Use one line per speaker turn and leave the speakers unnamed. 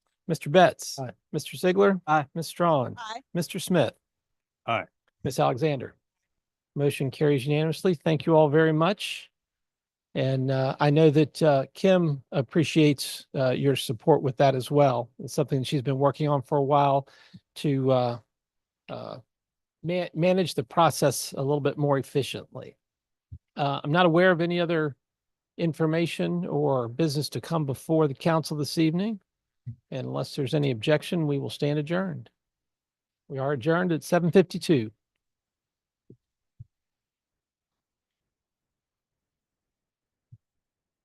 Mr. Betts.
Aye.
Mr. Ziegler.
Aye.
Ms. Strong.
Aye.
Mr. Smith.
Aye.
Ms. Alexander. Motion carries unanimously. Thank you all very much. And uh, I know that uh, Kim appreciates uh, your support with that as well. It's something she's been working on for a while to uh, uh, ma- manage the process a little bit more efficiently. Uh, I'm not aware of any other information or business to come before the council this evening. And Unless there's any objection, we will stand adjourned. We are adjourned at seven fifty-two.